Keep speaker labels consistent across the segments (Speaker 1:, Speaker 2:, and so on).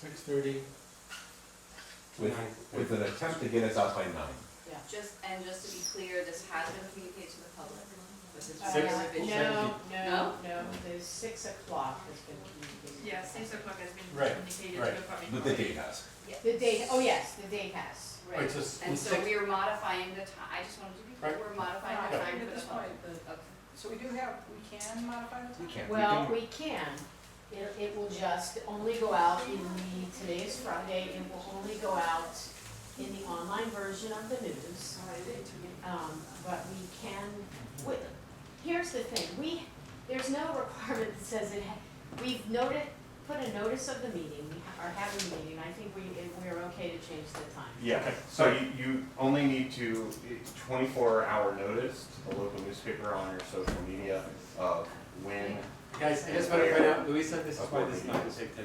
Speaker 1: six thirty to
Speaker 2: with,
Speaker 1: nine.
Speaker 2: with an attempt to get us out by nine.
Speaker 3: Just, and just to be clear, this has been communicated to the public, but this
Speaker 4: Uh,
Speaker 1: Six.
Speaker 3: is a
Speaker 1: Six.
Speaker 3: revision.
Speaker 5: No, no,
Speaker 3: No?
Speaker 5: no, the six o'clock has been communicated.
Speaker 4: Yeah, six o'clock has been
Speaker 1: Right,
Speaker 4: communicated to
Speaker 1: right.
Speaker 4: the public.
Speaker 2: But the date has.
Speaker 3: Yeah.
Speaker 5: The date, oh yes, the date has.
Speaker 1: Right,
Speaker 3: Right,
Speaker 1: so s-
Speaker 3: and
Speaker 1: with
Speaker 3: so
Speaker 1: six-
Speaker 3: we are modifying the time, I just wanted to be clear,
Speaker 1: Right.
Speaker 3: we're modifying the
Speaker 1: Yeah.
Speaker 3: time
Speaker 6: At
Speaker 3: for the
Speaker 6: this
Speaker 3: public.
Speaker 6: point, the-
Speaker 3: Okay.
Speaker 6: So we do have, we can modify the
Speaker 2: We
Speaker 6: time?
Speaker 2: can't. we
Speaker 5: Well,
Speaker 2: can-
Speaker 5: we can, it, it will just only go out in the, today is Friday, it will only go out in the online version of the news.
Speaker 4: Oh,
Speaker 6: All right, eight to me.
Speaker 5: Um, but we can, we, here's the thing, we, there's no requirement that says it, ha- we've noted, put a notice of the meeting, we ha- are having a meeting, I think we, we're okay to change the time.
Speaker 7: Yeah, so you, you only need to, it's twenty-four hour notice to the local newspaper on your social media of when,
Speaker 1: Guys, I just wanna point out, Louis said this is why this is not gonna take ten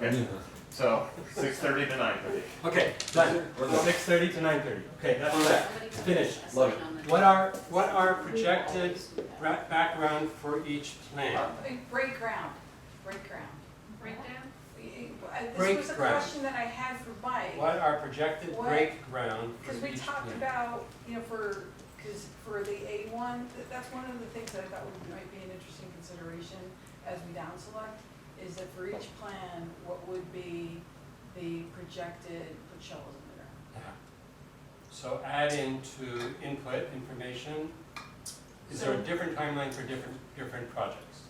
Speaker 1: minutes.
Speaker 7: okay, so six thirty to nine thirty.
Speaker 1: Okay, done, six thirty to nine thirty, okay, that's that.
Speaker 3: Somebody put
Speaker 1: Finish.
Speaker 3: a
Speaker 2: Love
Speaker 3: sign on the-
Speaker 1: What are, what are
Speaker 5: We
Speaker 1: projected
Speaker 5: always do that.
Speaker 1: ra- background for each plan?
Speaker 6: Uh, Break ground, break ground.
Speaker 4: Breakdown?
Speaker 6: Uh, This
Speaker 1: Break
Speaker 6: was a
Speaker 1: ground.
Speaker 6: question that I had for Mike,
Speaker 1: What are projected
Speaker 6: What-
Speaker 1: break ground for
Speaker 6: because we
Speaker 1: each
Speaker 6: talked
Speaker 1: plan?
Speaker 6: about, you know, for, because for the A one, that's one of the things that I thought would, might be an interesting consideration as we down select, is that for each plan, what would be the projected, put shovels in the ground.
Speaker 1: So add into input information, is there a
Speaker 5: So-
Speaker 1: different timeline for different, different projects?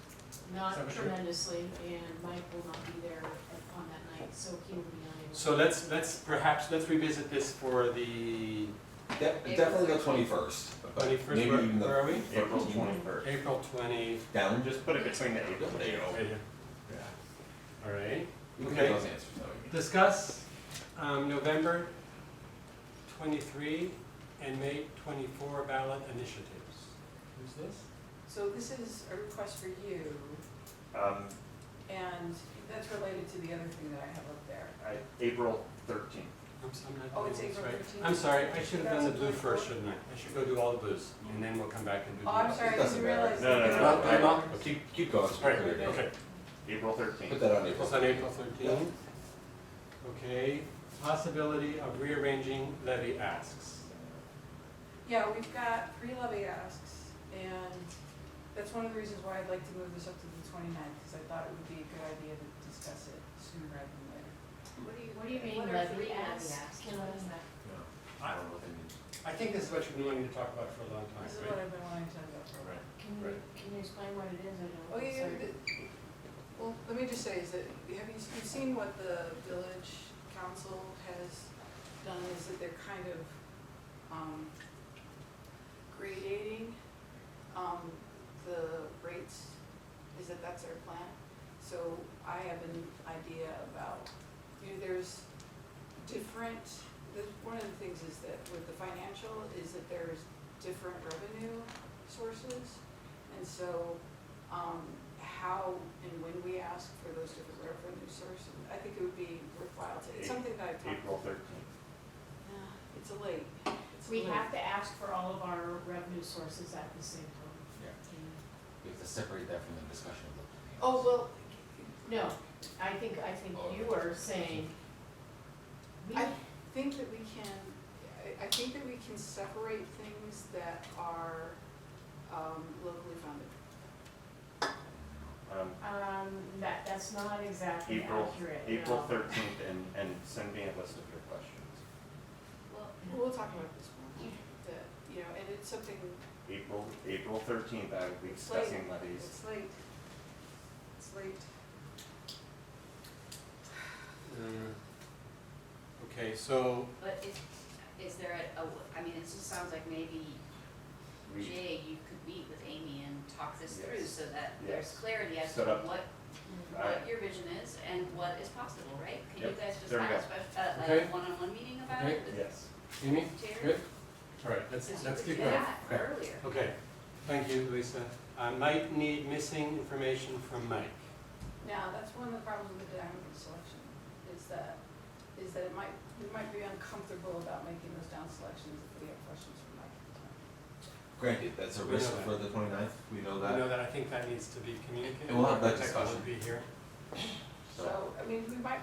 Speaker 5: Not
Speaker 1: Is that what you're-
Speaker 5: tremendously, and Mike will not be there at- on that night, so he will be unable.
Speaker 1: So let's, let's perhaps, let's revisit this for the
Speaker 2: De- Definitely the twenty-first, but
Speaker 1: twenty-first,
Speaker 2: maybe
Speaker 1: where
Speaker 2: even
Speaker 1: where
Speaker 2: the
Speaker 1: are we?
Speaker 7: April
Speaker 2: Mhm.
Speaker 7: twenty-first.
Speaker 1: April twenty,
Speaker 2: down just.
Speaker 7: Just put it between the April and
Speaker 2: There you
Speaker 7: June.
Speaker 2: go.
Speaker 1: right here. All right.
Speaker 2: We can
Speaker 1: Okay.
Speaker 2: get those answers, though.
Speaker 1: Discuss um, November 23 and May 24 ballot initiatives. Who's this?
Speaker 6: So this is a request for you,
Speaker 7: Um,
Speaker 6: And that's related to the other thing that I have up there.
Speaker 7: I, April thirteenth.
Speaker 1: I'm s- I'm not
Speaker 6: Oh,
Speaker 1: doing
Speaker 6: it's
Speaker 1: this
Speaker 6: April
Speaker 1: right.
Speaker 6: 15.
Speaker 1: I'm sorry, I should have done the blue
Speaker 6: 2024.
Speaker 1: first, shouldn't I? I should go do all the blues, and then we'll come back and do the
Speaker 6: Oh, I'm
Speaker 1: others.
Speaker 6: sorry, I
Speaker 2: Doesn't
Speaker 6: didn't realize.
Speaker 7: matter. No, no,
Speaker 6: that.
Speaker 7: no, no,
Speaker 1: no, no.
Speaker 2: Keep, keep going.
Speaker 1: All right, okay.
Speaker 7: April
Speaker 2: Put
Speaker 7: thirteenth.
Speaker 2: that on
Speaker 1: It's
Speaker 2: April.
Speaker 1: on April 13. Okay, possibility of rearranging levy asks.
Speaker 6: Yeah, we've got three levy asks, and that's one of the reasons why I'd like to move this up to the 29th, because I thought it would be a good idea to discuss it sooner rather than later.
Speaker 3: What do you,
Speaker 5: What do you mean
Speaker 3: what are
Speaker 5: levy
Speaker 3: three
Speaker 5: asks?
Speaker 3: asks?
Speaker 5: Can I-
Speaker 2: I don't know what they mean.
Speaker 1: I think this is what you've been wanting to talk about for a long time,
Speaker 6: This is
Speaker 1: right?
Speaker 6: what I've been wanting to talk about for a
Speaker 1: Right.
Speaker 6: while.
Speaker 5: Can you,
Speaker 1: Right.
Speaker 5: can you explain what it is? I don't.
Speaker 6: Oh,
Speaker 5: I'm
Speaker 6: yeah,
Speaker 5: sorry.
Speaker 6: yeah, the- well, let me just say is that, have you, you've seen what the village council has done, is that they're kind of, um, gradating, um, the rates, is that that's their plan? So I have an idea about, you know, there's different, the, one of the things is that with the financial, is that there's different revenue sources. And so, um, how and when we ask for those different revenue sources, I think it would be worthwhile to, it's something that I've talked.
Speaker 7: April thirteenth.
Speaker 6: Yeah, It's a late, it's a
Speaker 5: We
Speaker 6: late.
Speaker 5: have to ask for all of our revenue sources at the same time.
Speaker 2: Yeah, we have to separate that from the discussion of the.
Speaker 5: Oh, well, no, I think, I think you were saying, we,
Speaker 6: I think that we can, I, I think that we can separate things that are, um, locally funded.
Speaker 7: Um,
Speaker 5: um, that, that's not exactly
Speaker 7: April-
Speaker 5: accurate.
Speaker 7: April
Speaker 5: no.
Speaker 7: thirteenth and, and send me a list of your questions.
Speaker 3: Well,
Speaker 6: We'll talk about this one, that, you know, and it's something,
Speaker 7: April, April thirteenth, I will be
Speaker 6: It's late.
Speaker 7: discussing levies.
Speaker 6: it's late, it's late.
Speaker 1: Uh, Okay, so
Speaker 3: but is, is there a- a, I mean, it just sounds like maybe
Speaker 7: We-
Speaker 3: Jay, you could meet with Amy and talk this through
Speaker 7: Yes.
Speaker 3: so that there's
Speaker 7: Yes.
Speaker 3: clarity as to
Speaker 7: Set up.
Speaker 3: what,
Speaker 7: I-
Speaker 3: what your vision is and what is possible, right? Can you
Speaker 7: Yep.
Speaker 3: guys just
Speaker 7: There we
Speaker 3: have a
Speaker 7: go.
Speaker 3: special, uh, like
Speaker 1: Okay.
Speaker 3: a one-on-one meeting about
Speaker 1: Okay.
Speaker 3: it with
Speaker 7: Yes.
Speaker 1: Amy,
Speaker 3: Terry?
Speaker 1: good? All right, let's,
Speaker 3: Because you
Speaker 1: let's
Speaker 3: could
Speaker 1: keep
Speaker 3: do
Speaker 1: going.
Speaker 3: that earlier.
Speaker 1: Okay, thank you, Lisa. I might need missing information from Mike.
Speaker 6: Now, that's one of the problems with the downward selection, is that, is that it might, we might be uncomfortable about making those down selections if we have questions from Mike.
Speaker 2: Granted, that's a
Speaker 1: We
Speaker 2: risk
Speaker 1: know that.
Speaker 2: for the 29th. we know
Speaker 1: You
Speaker 2: that.
Speaker 1: know that I think that needs to be communicated.
Speaker 2: And we'll have that
Speaker 1: Technical would
Speaker 2: discussion.
Speaker 1: Be here.
Speaker 2: So-
Speaker 6: So, I mean, we might